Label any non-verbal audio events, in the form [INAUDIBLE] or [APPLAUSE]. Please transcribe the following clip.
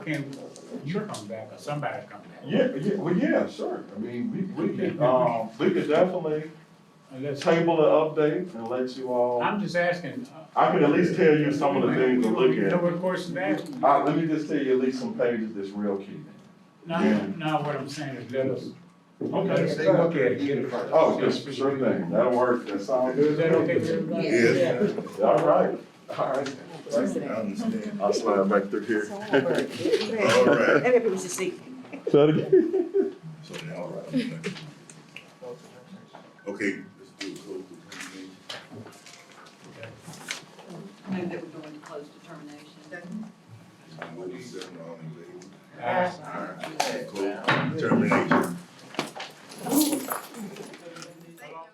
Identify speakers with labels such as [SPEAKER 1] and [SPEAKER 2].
[SPEAKER 1] can, you come back or somebody come back.
[SPEAKER 2] Yeah, yeah, well, yeah, sure. I mean, we, we could, um, we could definitely
[SPEAKER 1] Unless,
[SPEAKER 2] table the update and let you all,
[SPEAKER 1] I'm just asking. uh,
[SPEAKER 2] I can at least tell you some of the things to look
[SPEAKER 1] You know
[SPEAKER 2] at.
[SPEAKER 1] what question to ask?
[SPEAKER 2] Uh, let me just tell you at least some pages that's real key.
[SPEAKER 1] No, no, what I'm saying is let us, let
[SPEAKER 2] Okay.
[SPEAKER 1] us take a look at it.
[SPEAKER 2] Oh, yes, sure thing. That'll work. That sounds good.
[SPEAKER 1] Is that okay with everybody?
[SPEAKER 3] Yes.
[SPEAKER 2] All right, all right.
[SPEAKER 3] Tuesday.
[SPEAKER 4] understand.
[SPEAKER 2] I'll slide back through here.
[SPEAKER 4] [LAUGHS] All right.
[SPEAKER 3] Everybody was asleep.
[SPEAKER 4] So now, all right. okay. Okay, let's do a close determination.
[SPEAKER 5] Move that we go into closed determination.
[SPEAKER 4] I'm moving seven, all in favor?
[SPEAKER 1] Uh,
[SPEAKER 4] Aye.